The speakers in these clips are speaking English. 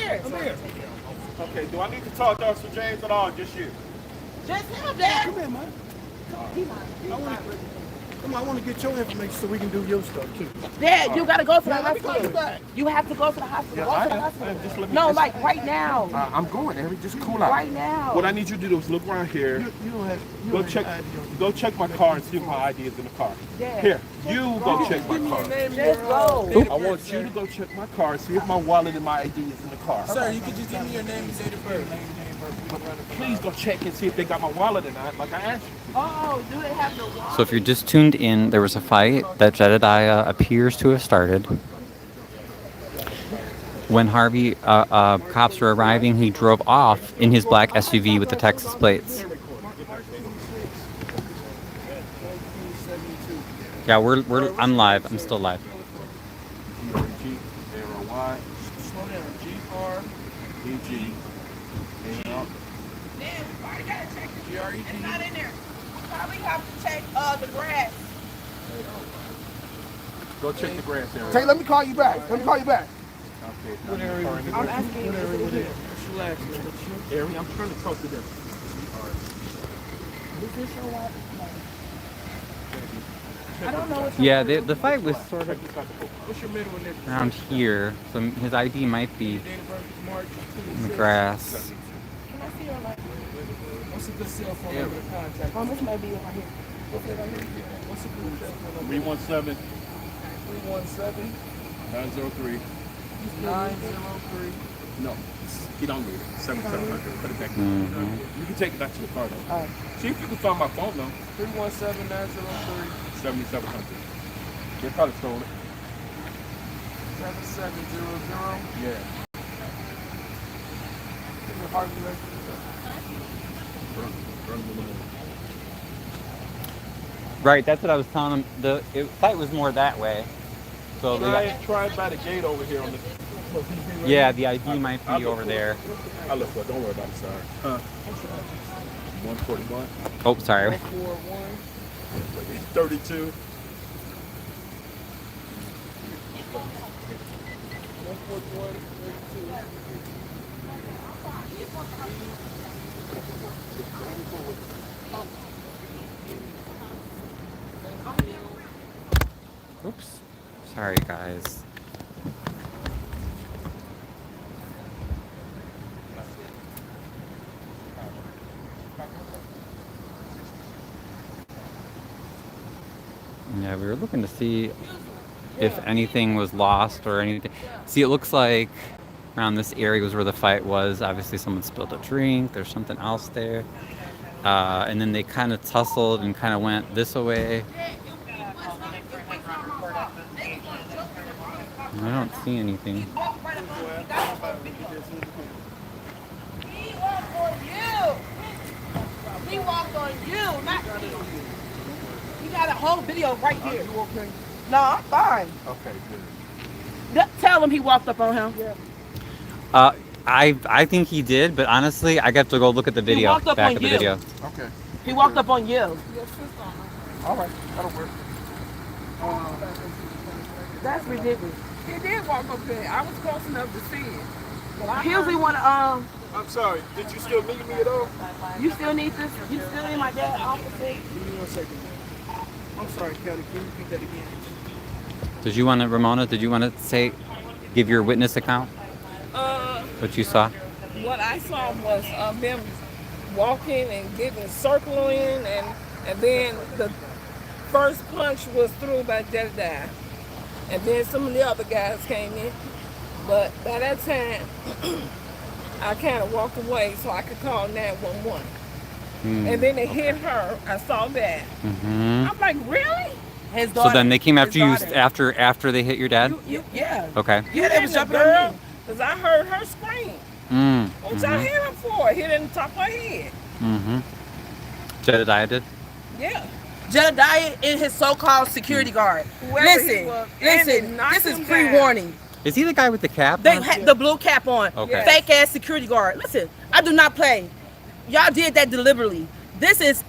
here. Come here. Okay, do I need to talk to Officer James at all? Just you? Just him, Dad. Come here, man. I wanna- Come on, I want to get your information so we can do your stuff too. Dad, you gotta go to the Yeah, let me call you hospital. back. You have to go to the hospital. I Go to the am. hospital. Just let me- No, just- like right now. I, I'm going, Eric. Just cool out. Right now. What I need you to do is look around here. You, you don't have. You Go don't check. Have ID on you. Go check my car and see if my ID is in the car. Yeah. Here, you go check my car. Just go. I want you to go check my car and see if my wallet and my ID is in the car. Sir, you could just give me your name and date of birth. Please go check and see if they got my wallet or not, like I asked you. Oh, do it have the wallet? So if you're just tuned in, there was a fight that Jedediah appears to have started. When Harvey uh, uh, cops were arriving, he drove off in his black SUV with the Texas plates. Yeah, we're, we're I'm live. I'm still live. G R Y G R E G. Damn, we already gotta check the It's not in there. We probably have to check uh the grass. Go check the grass area. Hey, let me call you back. Let me call you back. Okay, now you're in the grass. Area, I'm trying to talk to them. I don't know. What Yeah, the, the fight was sort of Check this out the book. What's your middle initial? around here, so his ID might be Date of birth is March in the 26. grass. can I see your light? What's a good cell phone number to contact? Um, Oh, this might be right here. What's a good cell phone 317 number? 317 903. 903. No, he don't need it. 7700. Put it back. You can take it back to the car though. Oh. See if you can find my phone though. 317 903 7700. They probably stole it. 7700. Yeah. Right, that's what I was telling him. The it, fight was more that way. So Can the, I try by the gate over here on the. Yeah, the ID might be over there. I look for it. Don't worry about it, sorry. Huh? 141, Oh, sorry. 441. 32. 141. 32. Oops. Sorry, guys. Yeah, we were looking to see if anything was lost or anything. See, it looks like around this area was where the fight was. Obviously, someone spilled a drink. There's something else there. Uh, and then they kind of tussled and kind of went this way. I don't see anything. He walked on you. He walked on you, not me. You got a whole video right here. You okay? No, I'm fine. Okay, good. Th- Tell him he walked up on him. Uh, I I think he did, but honestly, I got to go look at the video. walked up Back on of the you. video. Okay. He walked up on you. All right. That'll work. That's ridiculous. He did walk up there. I was close enough to see it. Well, I Hills, we want to, um, I'm sorry. Did you still meet me at all? you still need this? You still need my dad's office? Give me one second. I'm sorry, Kelly. Can you repeat that again? Did you want to, Ramona? Did you want to say, give your witness account? Uh, What you saw? what I saw was uh, them walking and getting circling, and and then the first punch was through by Jedediah, and then some of the other guys came in. But by that time, I kind of walked away so I could call 911. Hmm. And then they hit her. I saw that. Mm-hmm. hmm I'm like, really? His So daughter. then they came His after you daughter. after after they hit your dad. You- you- yeah. Okay. Yeah, they And was the jumping on girl, Cause I heard her scream. Mm. What y'all Mhm. hit him for? Hit in the top of her head. Mm-hmm. Jedediah did. Yeah. Jedediah and his so-called security guard. Whoever he listen, was, and they listen, knocked this is him down. pre-warning. Is he the guy with the cap? They on? had the blue cap on. Okay. Fake ass security guard. Listen, I do not play. Y'all did that deliberately. This is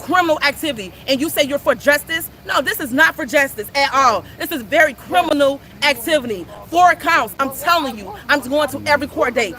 criminal activity. And you say you're for justice? No, this is not for justice at all. This is very criminal activity. Four counts. I'm telling you. I'm going to every court date.